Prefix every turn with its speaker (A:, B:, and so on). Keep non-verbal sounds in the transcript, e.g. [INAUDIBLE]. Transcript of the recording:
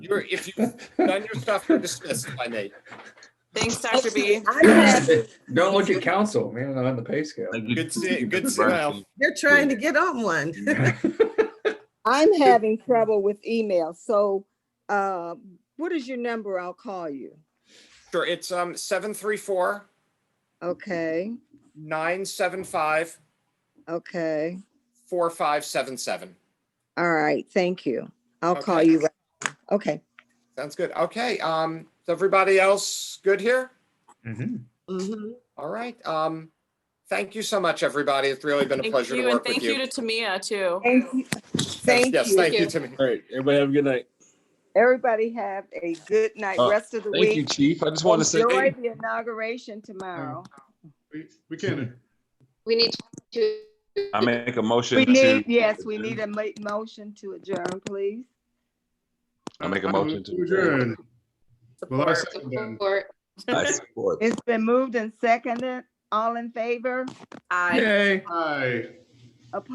A: You're, if you've done your stuff, you're dismissed, if I may.
B: Thanks, Dr. B.
C: I'm happy.
D: Don't look at council, man, on the pay
E: [LAUGHS]
D: scale.
A: Good si- good smile.
F: They're trying to get on one.
C: I'm having trouble with email, so uh, what is your number? I'll call you.
A: Sure, it's um seven three four
C: Okay,
A: nine seven five
C: okay,
A: four five seven seven.
C: all right, thank you. I'll call
A: Okay.
C: you. right- Okay.
A: Sounds good. Okay, um, is everybody else good here?
D: Mhm.
F: Mhm.
A: All right, um, thank you so much, everybody. It's really been a
B: Thank
A: pleasure to
B: you, and
A: work with
B: thank you
A: you.
B: to Tamia, too.
C: Thank you. Thank
A: Yes,
C: you.
A: thank you, Timmy.
E: All right, everybody have a good night.
C: Everybody have a good night,
E: Uh,
C: rest of the
E: Thank you,
C: week.
E: chief. I just want to say. Uh,
C: Enjoy the inauguration tomorrow.
G: We, we can.
H: We need to.
E: I make a
C: We
E: motion
C: need,
E: to,
C: yes, we need a ma- motion to adjourn, please.
E: I make a
G: I
E: motion to
G: Uh-huh. adjourn. Well, I second that.
H: Support.
E: I support.
C: It's been moved and seconded. All in favor?
B: Aye.
D: Yay.
G: Aye.